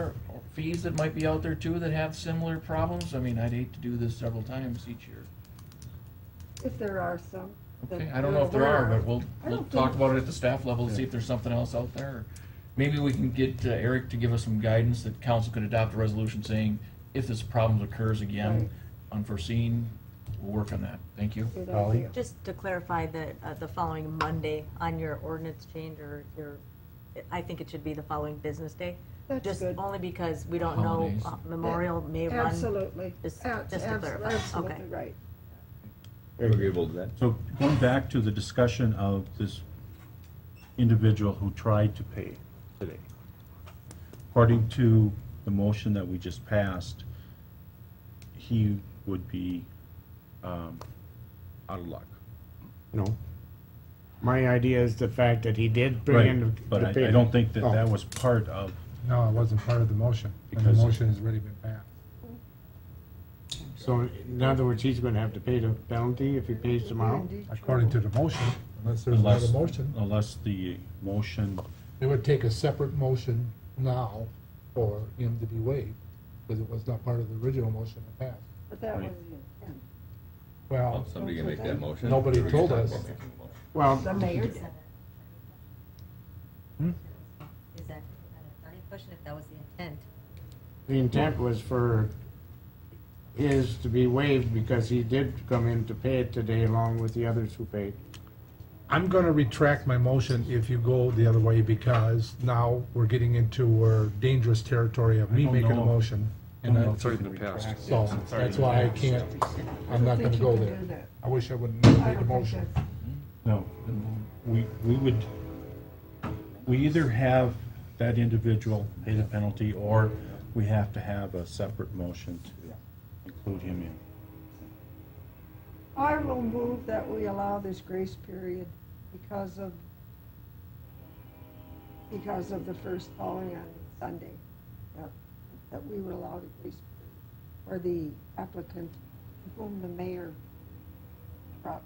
other fees that might be out there too that have similar problems? I mean, I'd hate to do this several times each year. If there are some. that Okay, I don't you're know if there are, aware but of. we'll, I we'll don't talk think- about it at the staff level and see if there's something else out there. Maybe we can get uh, Eric to give us some guidance that council could adopt a resolution saying if this problem occurs again, Right. unforeseen, we'll work on that. Thank you. Good Holly? idea. Just to clarify that, uh, the following Monday on your ordinance change or your, I think it should be the following business day. That's Just good. only because we don't know, Holidays. uh, Memorial may run. Absolutely. Just- Abs- just to abs- clarify. Okay. Absolutely right. Agreeable to that. So going back to the discussion of this individual who tried to pay today. According to the motion that we just passed, he would be um, out of luck. No. My idea is the fact that he did bring in. the- Right, But the I I paper. don't think that Oh. that was part of, No, it wasn't part of the motion, and the Because- motion has already been passed. So in other words, he's gonna have to pay the penalty if he pays tomorrow? According to the motion, unless there's another unless, oh. motion, unless the motion, it would take a separate motion now for him to be waived, because it was not part of the original motion that passed. But that was Right. the intent. Well, Somebody can make that motion. Nobody told us. Well, The mayor did. Is that an attorney question if that was the intent? the intent was for his to be waived because he did come in to pay it today along with the others who paid. I'm gonna retract my motion if you go the other way, because now we're getting into uh, dangerous territory of me I don't making a know. motion. And Oh, I, so, in the past. that's why I can't, I'm not gonna Think you go can there. do that. I wish I wouldn't I have made don't a think motion. that's- No, we, we would, we either have that individual pay the penalty, or we have to have a separate motion to include him in. I will move that we allow this grace period because of, because of the first following on Sunday. That- That we would allow the grace period for the applicant whom the mayor brought.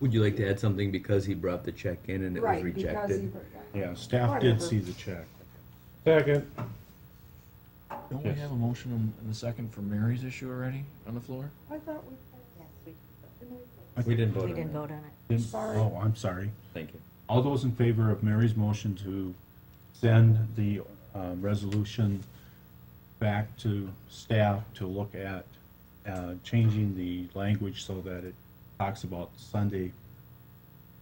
Would you like to add something because he brought the check in and it was Right, because he rejected? brought- Yeah, staff did Whatever. see the check. Second. Don't we Yes. have a motion in a second for Mary's issue already on the floor? I thought we, Yes, we, We didn't vote We on didn't it. vote on it. Didn't- Sorry. Oh, I'm sorry. Thank you. All those in favor of Mary's motion to send the uh, resolution back to staff to look at uh, changing the language so that it talks about Sunday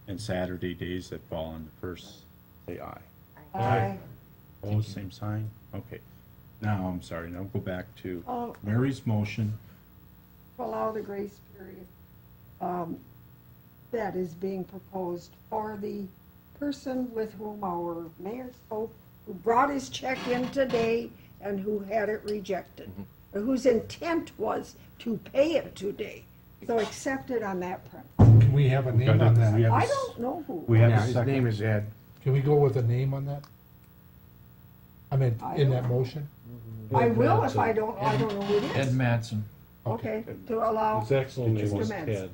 and Saturday days that fall on the first, say aye. I, All the same sign? Okay. Now, I'm sorry, now go back to I'll Mary's motion. allow the grace period um, that is being proposed for the person with whom our mayor spoke, who brought his check in today and who had it rejected, or whose intent was to pay it today, so accept it on that premise. Can we have a name on We that? have a I s- don't know who, We have Yeah, a his name second. is Ed. Can we go with a name on that? I mean, I in don't that know. motion? I will if I don't, I don't know who it Ed is. Mattson. Okay, to allow, His actual name Just was amends. Ted.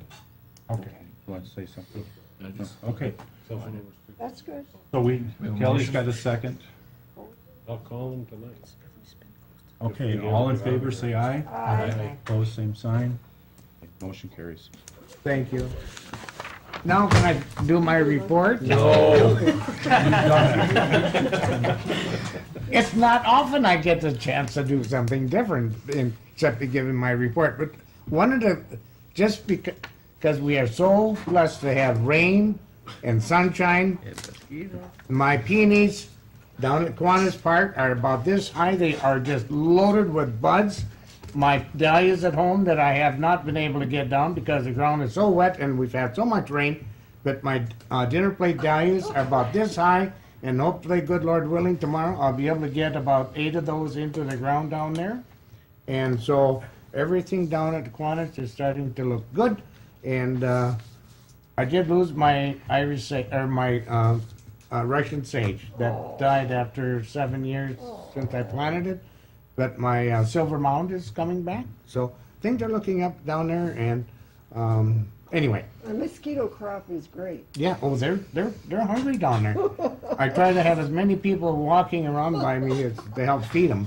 Okay. Want to say something? I just- Okay, that's good. so we, We have a Kelly's motion. got a second. I'll call him tonight. Okay, Yeah. all in favor, say aye. Aye. Opposed, same sign. Motion carries. Thank you. Now can I do my report? It's not often I get the chance to do something different, in- except to give in my report, but one of the, just becau- because we are so blessed to have rain and sunshine, my peonies down at Kiwanis Park are about this high, they are just loaded with buds. My dahlias at home that I have not been able to get down because the ground is so wet and we've had so much rain, that my uh, dinner plate dahlias are about this high, and hopefully, good Lord willing, tomorrow I'll be able to get about eight of those into the ground down there. And so everything down at Kiwanis is starting to look good. And uh, I did lose my Irish sa- or my uh, uh, Russian sage that died after seven years since I planted it. But my uh, silver mound is coming back, so things are looking up down there, and um, Anyway, The mosquito crop is great. yeah, oh, they're, they're, they're hungry down there. I try to have as many people walking around by me as to help feed them.